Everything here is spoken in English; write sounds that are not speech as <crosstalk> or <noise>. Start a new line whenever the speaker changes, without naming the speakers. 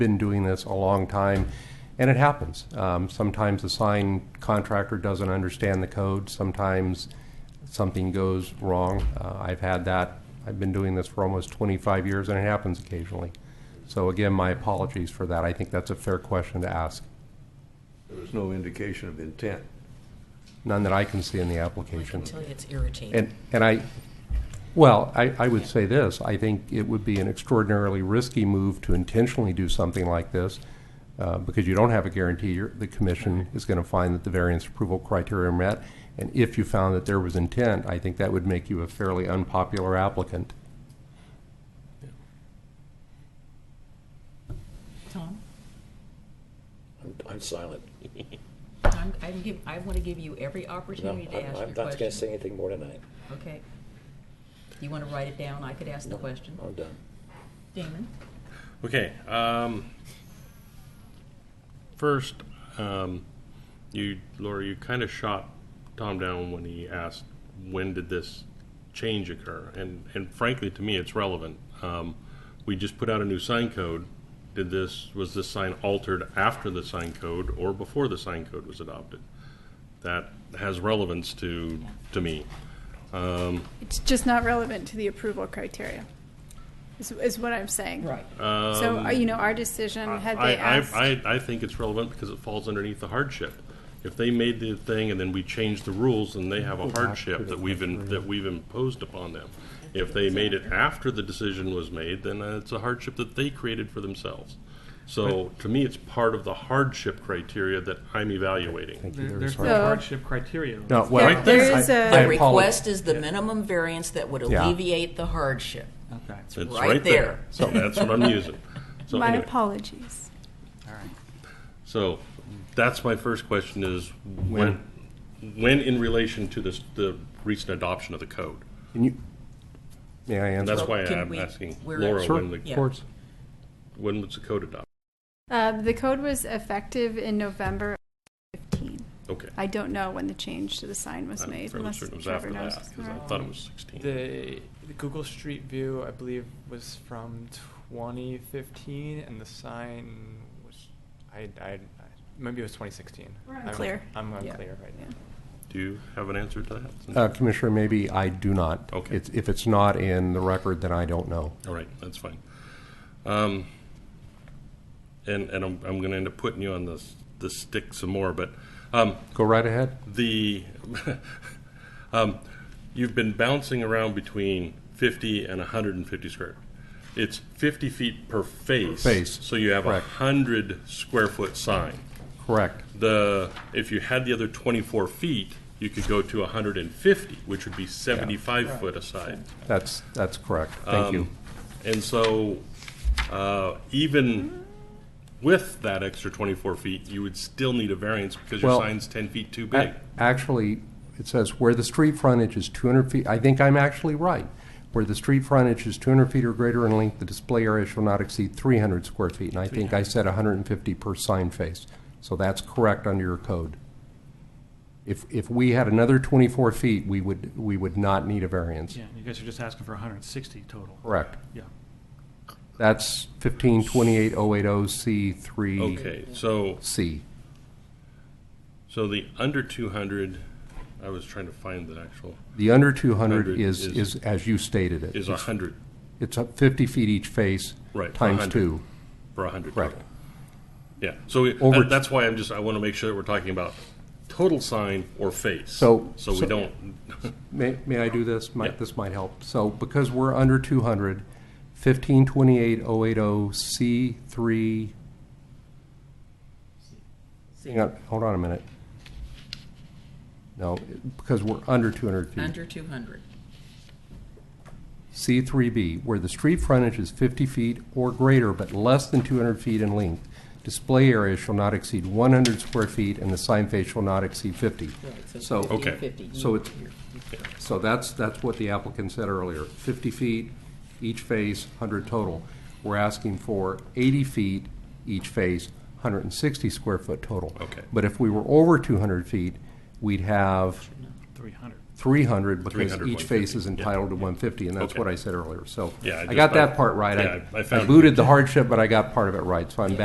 been doing this a long time, and it happens. Um, Sometimes the sign contractor doesn't understand the code, sometimes something goes wrong. Uh, I've had that, I've been doing this for almost 25 years, and it happens occasionally. So again, my apologies for that. I think that's a fair question to ask,
There was no indication of intent.
none that I can see in the
Like,
application.
Until it's irritating.
And, and I, well, I, I would say this, I think it would be an extraordinarily risky move to intentionally do something like this, uh, because you don't have a guarantee, You're- the commission is gonna find that the variance approval criteria are met, and if you found that there was intent, I think that would make you a fairly unpopular applicant.
Tom,
I'm, I'm silent.
I'm, I'm give, I want to give you every
No,
opportunity
I'm
to ask your
I'm
question.
not gonna say anything more tonight.
Okay. You want to write it down? I could ask the
No,
question.
I'm done.
Damon?
Okay. Um, first, um, you, Laura, you kind of shot Tom down when he asked, "When did this change occur?" And and frankly, to me, it's relevant. Um, we just put out a new sign code. Did this was this sign altered after the sign code or before the sign code was adopted? That has relevance to to me.
It's just not relevant to the approval criteria, is, is what I'm saying. So, uh, you know, our decision, had
Um, I,
they
I,
asked,
I, I think it's relevant because it falls underneath the hardship. If they made the thing and then we changed the rules and they have a hardship that we've, in- that we've imposed upon them. If they made it after the decision was made, then uh, it's a hardship that they created for themselves. So to me, it's part of the hardship criteria that I'm evaluating.
There- There's
So-
no hardship criteria.
No, well,
There- there is
I-
a-
I
The
apologize.
request is the minimum variance that would
Yeah.
alleviate the hardship.
Okay,
It's
right
right
there.
there. So that's what I'm using. So
my
anyway.
apologies.
all right.
So that's my first question is when, when in relation to this, the recent adoption of the code?
Can you, may I
And
answer?
that's why
Can
I'm
we-
asking
we're-
Laura,
Sure,
when
of
yeah.
the,
course.
when was the code adopted?
Uh, the code was effective in November of 15.
Okay.
I don't know when the change to the sign was
I'm
made,
fairly
unless
certain it was
Trevor
after that,
knows.
because I thought it was 16.
The, the Google Street View, I believe, was from 2015, and the sign was, I, I, I- maybe it was 2016.
We're
I'm-
unclear.
I'm
Yeah.
unclear right now.
Do you have an answer to that?
Uh, Commissioner, maybe I do not.
Okay.
It's- If it's not in the record, then I don't know.
All right, that's fine. Um, and, and I'm, I'm gonna end up putting you on the, s- the stick some more, but, um,
Go right ahead.
the <laughs> um, you've been bouncing around between 50 and 150 square. It's 50 feet per face.
Face,
So you have a
correct.
100 square foot sign.
Correct.
The if you had the other 24 feet, you could go to 150, which would be 75 foot aside. Um,
That's, that's correct. Thank
Um,
you.
And so, uh, even with that extra 24 feet, you would still need a variance because your
Well,
sign's 10 feet too big.
A- Actually, it says where the street frontage is 200 feet, I think I'm actually right. Where the street frontage is 200 feet or greater in length, the display area shall not exceed 300 square feet. And I think I said 150 per sign face. So that's correct under your code. If, if we had another 24 feet, we would, we would not need a variance.
Yeah, you guys are just asking for 160 total.
Correct.
Yeah.
That's 1528080C3C.
Okay, so So the under two hundred, I was trying to find the actual,
The under 200
Hundred
is,
is-
is as you stated it.
is a hundred
It's up 50 feet each face.
Right,
Times
100.
two.
for a hundred
Correct.
total. Yeah, so we-
Over-
that- that's why I'm just, I want to make sure that we're talking about total sign or face.
So-
So we
so-
don't,
May, may I do this?
Yeah.
Might, this might help. So because we're under 200, 1528080C3. Hang on, hold on a minute. No, because we're under 200 feet.
Under 200.
C3B, where the street frontage is 50 feet or greater but less than 200 feet in length, display area shall not exceed 100 square feet and the sign face shall not exceed 50. So-
50,
Okay.
50. You-
So it's-
you're-
So that's, that's what the applicant said earlier, 50 feet each face, 100 total. We're asking for 80 feet each face, 160 square foot total.
Okay.
But if we were over 200 feet, we'd have
three hundred.
300 because
300,
each face
150,
is
yeah.
entitled to 150, and that's
Okay.
what I said earlier. So
Yeah, I
I got
just- I-
that part right.
yeah, I- I
I- I
found-
booted the hardship, but I got part of it right, so I'm back